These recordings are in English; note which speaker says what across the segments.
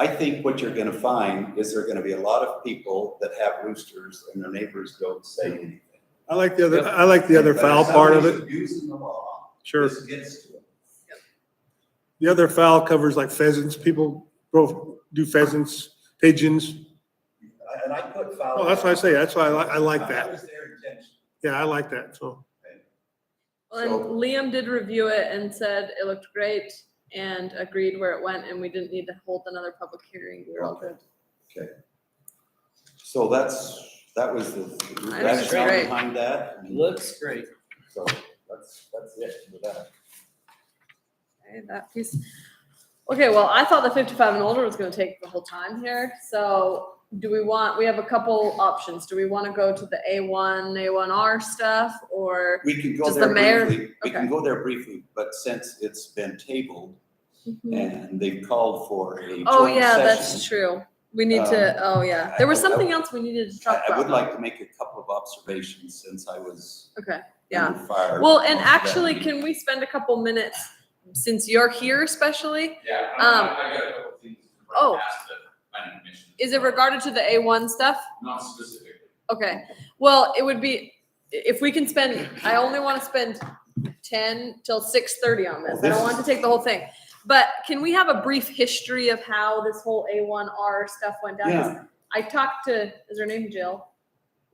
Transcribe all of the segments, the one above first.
Speaker 1: I think what you're gonna find is there are gonna be a lot of people that have roosters and their neighbors don't say anything.
Speaker 2: I like the other, I like the other
Speaker 1: But if
Speaker 2: foul part of
Speaker 1: somebody's
Speaker 2: it,
Speaker 1: Abusing the law,
Speaker 2: sure.
Speaker 1: this gets to them.
Speaker 2: The other foul covers like pheasants, people both do pheasants, pigeons.
Speaker 1: And I put foul.
Speaker 2: Oh, that's what I say, that's why I like, I like
Speaker 1: That
Speaker 2: that.
Speaker 1: was their intention.
Speaker 2: Yeah, I like that, so.
Speaker 1: So-
Speaker 3: Well, and Liam did review it and said it looked great and agreed where it went and we didn't need to hold another public hearing. We were all good.
Speaker 1: So that's, that was the,
Speaker 3: I
Speaker 1: that's
Speaker 3: was right.
Speaker 1: behind that.
Speaker 4: Looks great.
Speaker 1: So that's, that's it for that.
Speaker 3: Okay, that piece. Okay, well, I thought the fifty-five and older was gonna take the whole time here, so do we want, we have a couple options. Do we wanna go to the A one, A one R stuff or?
Speaker 1: We can go
Speaker 3: Does the
Speaker 1: there
Speaker 3: mayor-
Speaker 1: briefly, we can
Speaker 3: okay.
Speaker 1: go there briefly, but since it's been tabled and they've called for a Mm-hmm. joint session.
Speaker 3: Oh, yeah, that's true. We need to, oh, yeah. There was
Speaker 1: I- I-
Speaker 3: something else we needed to
Speaker 1: I
Speaker 3: talk
Speaker 1: I would
Speaker 3: about.
Speaker 1: like to make a couple of observations since I was
Speaker 3: Okay, yeah.
Speaker 1: under fire.
Speaker 3: Well, and
Speaker 1: most of that
Speaker 3: actually,
Speaker 1: meeting.
Speaker 3: can we spend a couple minutes, since you're here especially?
Speaker 5: Yeah,
Speaker 3: Um,
Speaker 5: I, I got a couple things to
Speaker 3: oh.
Speaker 5: run past the planning commission.
Speaker 3: Is it regarded to the A1 stuff?
Speaker 5: Not specifically.
Speaker 3: Okay, well, it would be, i- if we can spend, I only want to spend ten till six thirty on this. I
Speaker 1: Well,
Speaker 3: don't
Speaker 1: this
Speaker 3: want to take the whole thing. But can we have a brief history of how this whole A1R stuff went down? 'Cause I talked to, is her name Jill?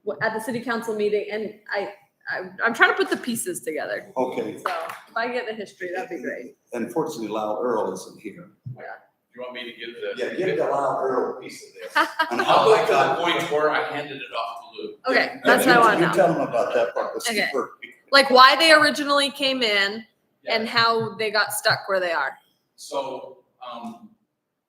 Speaker 3: Wh- At the city council meeting, and I, I, I'm trying to put the pieces together.
Speaker 1: Okay,
Speaker 3: So if I get the history, that'd be great.
Speaker 1: unfortunately, Lyle Earl isn't here.
Speaker 5: You want me to give the?
Speaker 1: Yeah, give the Lyle Earl piece of this. And
Speaker 5: I'll
Speaker 1: how I
Speaker 5: go to
Speaker 1: got.
Speaker 5: the point where I handed it off to Lou.
Speaker 3: Okay, that's what I want to
Speaker 1: You
Speaker 3: know.
Speaker 1: tell him about that part, the
Speaker 3: Okay.
Speaker 1: steeper.
Speaker 3: Like why they originally came in and
Speaker 5: Yeah.
Speaker 3: how they got stuck where they are.
Speaker 5: So, um,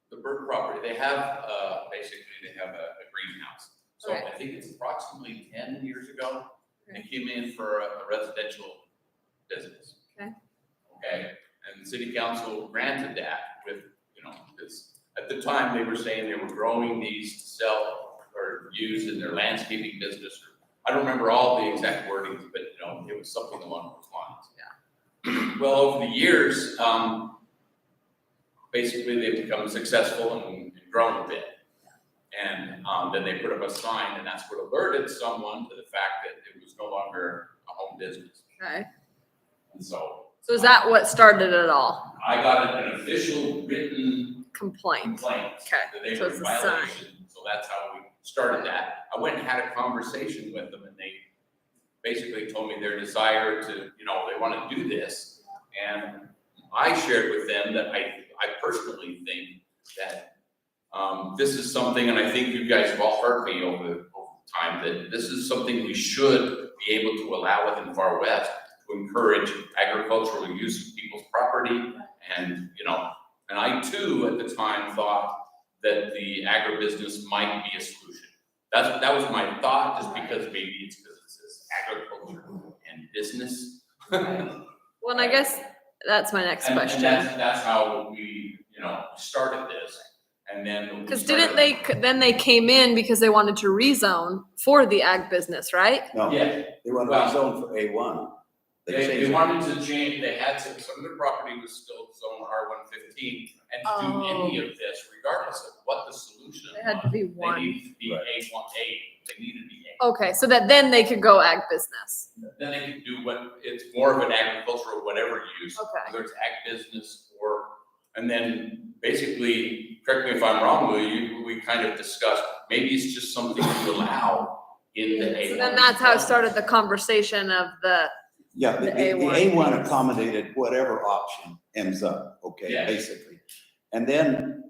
Speaker 5: the Burke property, they have, uh, basically, they have a, a greenhouse. So
Speaker 3: Okay.
Speaker 5: I think it's approximately ten years ago, they
Speaker 3: Okay.
Speaker 5: came in for a a residential business.
Speaker 3: Okay.
Speaker 5: Okay, and the city council granted that with, you know, this, at the time, they were saying they were growing these to sell or use in their landscaping business. I don't remember all the exact wordings, but, you know, it was something along those lines. Yeah. Well, over the years, um, basically, they've become successful and and grown a bit. And um, then they put up a sign, and that's what alerted someone to the fact that it was no longer a home business.
Speaker 3: Okay.
Speaker 5: And so
Speaker 3: So is that what started it all?
Speaker 5: I got an official written
Speaker 3: Complaint.
Speaker 5: complaint
Speaker 3: Okay,
Speaker 5: that they
Speaker 3: so
Speaker 5: were
Speaker 3: it's
Speaker 5: in
Speaker 3: a sign.
Speaker 5: violation. So that's how we started that. I went and had a conversation with them, and they basically told me their desire to, you know, they want to do this. And I shared with them that I, I personally think that um, this is something, and I think you guys have all heard me over, over time, that this is something we should be able to allow within Far West to encourage agricultural use of people's property and, you know, and I too, at the time, thought that the agribusiness might be a solution. That's, that was my thought, just because maybe it's because it says agriculture and business.
Speaker 3: Well, and I guess that's my next
Speaker 5: And- And
Speaker 3: question.
Speaker 5: that's, that's how we, you know, started this, and then. we
Speaker 3: Because didn't
Speaker 5: started-
Speaker 3: they, c- then they came in because they wanted to rezone for the ag business, right?
Speaker 1: No,
Speaker 5: Yeah,
Speaker 1: they want to
Speaker 5: Well-
Speaker 1: zone for A one.
Speaker 5: they, they wanted to change, they had some, some of the property was still zone R one fifteen, and to do any of this, regardless of what the solution
Speaker 3: It Oh. had to
Speaker 5: was,
Speaker 3: be
Speaker 5: they
Speaker 3: one.
Speaker 5: needed to be A one, A, they needed to be A.
Speaker 3: Okay, so that then they could go ag business.
Speaker 5: then they can do what, it's more of an agricultural whatever use.
Speaker 3: Okay.
Speaker 5: Whether it's ag business or, and then basically, correct me if I'm wrong, Lou, you, we kind of discussed, maybe it's just something to allow in the A
Speaker 3: So then that's how it started the conversation of the,
Speaker 1: Yeah,
Speaker 3: The
Speaker 1: the, the
Speaker 3: A1.
Speaker 1: A one accommodated whatever option ends up, okay,
Speaker 5: Yeah.
Speaker 1: basically. And then,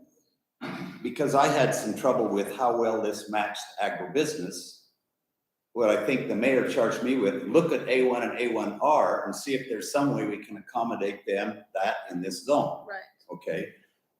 Speaker 1: because I had some trouble with how well this matched agribusiness, what I think the mayor charged me with, look at A one and A one R and see if there's some way we can accommodate them, that in this zone
Speaker 3: right,
Speaker 1: okay?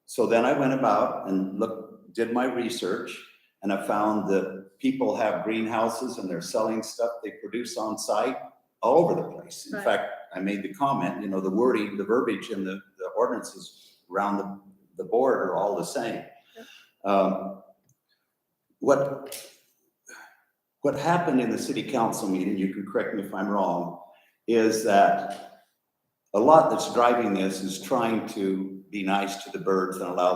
Speaker 1: So then I went about and looked, did my research, and I found that people have greenhouses and they're selling stuff they produce on site all over the place. In
Speaker 3: Right.
Speaker 1: fact, I made the comment, you know, the wording, the verbiage and the, the ordinances around the, the board are all the same. Um, What, what happened in the city council meeting, you can correct me if I'm wrong, is that a lot that's driving this is trying to be nice to the birds and allow